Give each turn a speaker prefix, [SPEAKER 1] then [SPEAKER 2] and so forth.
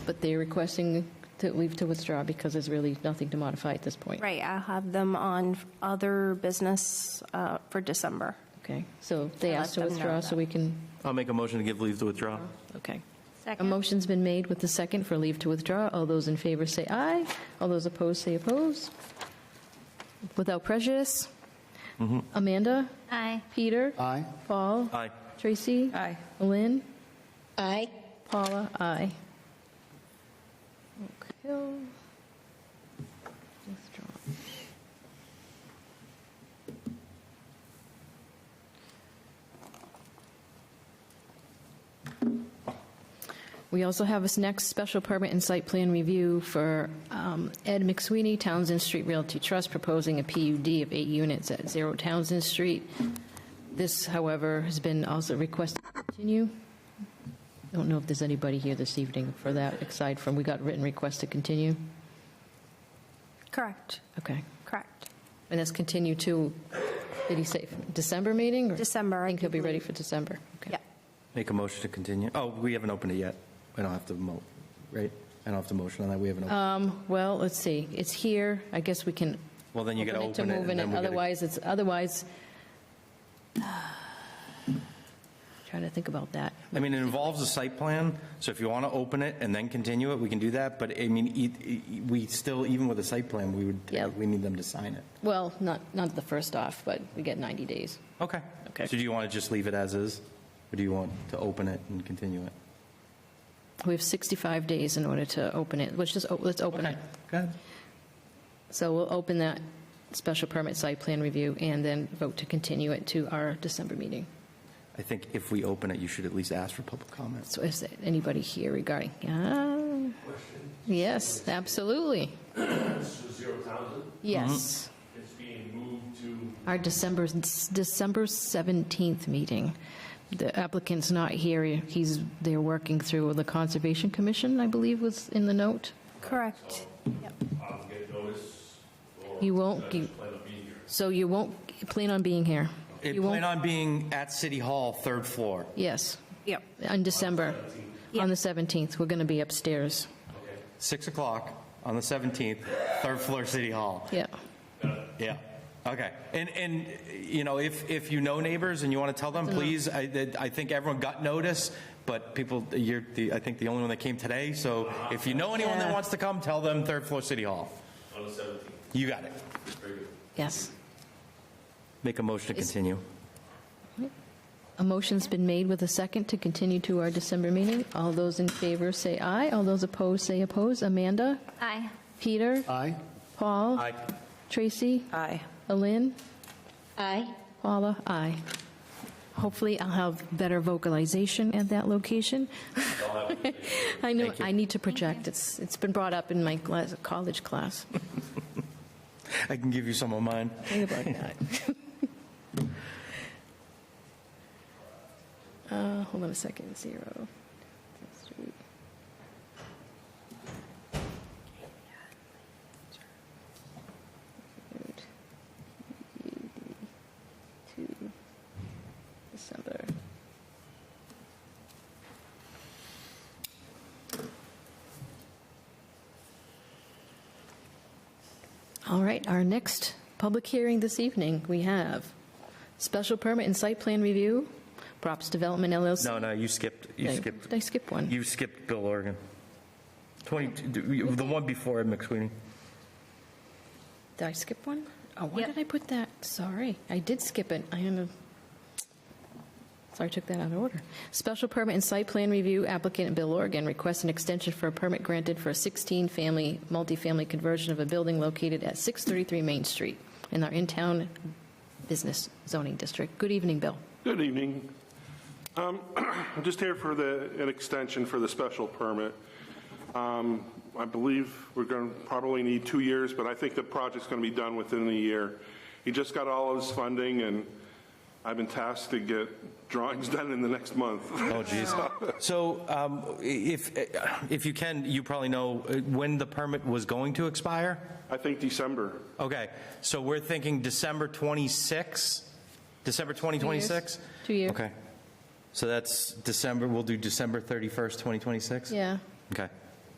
[SPEAKER 1] but they're requesting to leave to withdraw because there's really nothing to modify at this point.
[SPEAKER 2] Right, I'll have them on other business uh, for December.
[SPEAKER 1] Okay, so they
[SPEAKER 2] I let
[SPEAKER 1] asked to
[SPEAKER 2] them know
[SPEAKER 1] withdraw, so
[SPEAKER 2] that.
[SPEAKER 1] we can,
[SPEAKER 3] I'll make a motion to give leave to withdraw.
[SPEAKER 1] okay. A motion's been made with the second for leave to withdraw. All those in favor say aye. All those opposed say oppose. Without prejudice. Amanda?
[SPEAKER 4] Aye.
[SPEAKER 1] Peter?
[SPEAKER 5] Aye.
[SPEAKER 1] Paul?
[SPEAKER 3] Aye.
[SPEAKER 1] Tracy?
[SPEAKER 6] Aye.
[SPEAKER 1] Lynn?
[SPEAKER 4] Aye.
[SPEAKER 1] Paula, aye. Oak Hill. Withdraw. We also have this next special permit and site plan review for um, Ed McSweeney, Townsend Street Realty Trust, proposing a PUD of eight units at Zero Townsend Street. This, however, has been also requested to continue. I don't know if there's anybody here this evening for that, aside from, we got written requests to continue?
[SPEAKER 2] Correct,
[SPEAKER 1] Okay.
[SPEAKER 2] correct.
[SPEAKER 1] And that's continue to, did he say December meeting? or-
[SPEAKER 2] December,
[SPEAKER 1] I
[SPEAKER 2] I
[SPEAKER 1] think he'll be ready
[SPEAKER 2] believe.
[SPEAKER 1] for December. Okay.
[SPEAKER 2] Yeah,
[SPEAKER 3] Make a motion to continue. Oh, we haven't opened it yet. We don't have to mo, right? I don't have to motion on that. We haven't opened.
[SPEAKER 1] Um, Well, let's see, it's here, I guess we can.
[SPEAKER 3] Well, then you gotta
[SPEAKER 1] to
[SPEAKER 3] Uh, open it,
[SPEAKER 1] move
[SPEAKER 3] and
[SPEAKER 1] in
[SPEAKER 3] then we gotta-
[SPEAKER 1] Otherwise, it's, otherwise, trying to think about that.
[SPEAKER 3] I mean, it involves a site plan, so if you want to open it and then continue it, we can do that. But I mean, e- e- we still, even with a site plan, we would,
[SPEAKER 1] Yeah.
[SPEAKER 3] we need them to sign it.
[SPEAKER 1] Well, not, not the first off, but we get 90 days.
[SPEAKER 3] Okay.
[SPEAKER 1] Okay.
[SPEAKER 3] So do you want to just leave it as is? Or do you want to open it and continue it?
[SPEAKER 1] We have 65 days in order to open it, let's just, o- let's open it.
[SPEAKER 3] Go ahead.
[SPEAKER 1] So we'll open that special permit site plan review and then vote to continue it to our December meeting.
[SPEAKER 3] I think if we open it, you should at least ask for public comments.
[SPEAKER 1] So is there anybody here regarding? Ah. Yes, absolutely.
[SPEAKER 7] Zero Townsend,
[SPEAKER 1] Yes.
[SPEAKER 7] it's being moved to
[SPEAKER 1] Our December, December 17th meeting. The applicant's not here. He's, they're working through the Conservation Commission, I believe was in the note.
[SPEAKER 2] correct.
[SPEAKER 7] um, get notice or
[SPEAKER 1] You won't,
[SPEAKER 7] just
[SPEAKER 1] gi-
[SPEAKER 7] plan on being here.
[SPEAKER 1] so you won't plan on being here?
[SPEAKER 3] It
[SPEAKER 1] You won't-
[SPEAKER 3] plan on being at City Hall, third floor.
[SPEAKER 1] Yes,
[SPEAKER 2] Yep.
[SPEAKER 1] on December, on the 17th. We're going to be upstairs.
[SPEAKER 3] 6 o'clock on the 17th, third floor, City Hall.
[SPEAKER 1] Yeah.
[SPEAKER 3] Yeah, okay. And, and, you know, if, if you know neighbors and you want to tell them, please, I, that- I think everyone got notice, but people, you're, the I think the only one that came today, so if you know anyone that
[SPEAKER 1] Yeah.
[SPEAKER 3] wants to come, tell them third floor City Hall. On the 17th. You got it.
[SPEAKER 1] Yes.
[SPEAKER 3] Make a motion to continue.
[SPEAKER 1] A motion's been made with a second to continue to our December meeting. All those in favor say aye. All those opposed say oppose. Amanda?
[SPEAKER 4] Aye.
[SPEAKER 1] Peter?
[SPEAKER 5] Aye.
[SPEAKER 1] Paul?
[SPEAKER 3] Aye.
[SPEAKER 1] Tracy?
[SPEAKER 6] Aye.
[SPEAKER 1] Alin?
[SPEAKER 4] Aye.
[SPEAKER 1] Paula? Aye. Hopefully, I'll have better vocalization at that location. I know, I need to project. It's, it's been brought up in my class- college class.
[SPEAKER 3] I can give you some of mine.
[SPEAKER 1] Think about that. Uh, hold on a second, zero. Two, December. All right, our next public hearing this evening, we have special permit and site plan review, Props Development LLC.
[SPEAKER 3] No, no, you skipped, you
[SPEAKER 1] Did I-
[SPEAKER 3] skipped,
[SPEAKER 1] Did I skip one?
[SPEAKER 3] you skipped Bill Oregon. 20, the one before Ed McSweeney.
[SPEAKER 1] Did I skip one? Oh, why
[SPEAKER 4] Yep.
[SPEAKER 1] did I put that? Sorry, I did skip it. I am a, sorry, I took that out of order. Special permit and site plan review applicant Bill Oregon requests an extension for a permit granted for a 16-family, multifamily conversion of a building located at 633 Main Street in our in-town business zoning district. Good evening, Bill.
[SPEAKER 8] Good evening. Um, I'm just here for the, an extension for the special permit. Um, I believe we're going to probably need two years, but I think the project's going to be done within a year. He just got all of his funding, and I've been tasked to get drawings done in the next month.
[SPEAKER 3] Oh, jeez. So um, if, if you can, you probably know uh, when the permit was going to expire?
[SPEAKER 8] I think December.
[SPEAKER 3] Okay, so we're thinking December 26? December 2026?
[SPEAKER 1] Two years.
[SPEAKER 3] Okay. So that's December, we'll do December 31st, 2026?
[SPEAKER 1] Yeah.
[SPEAKER 3] Okay.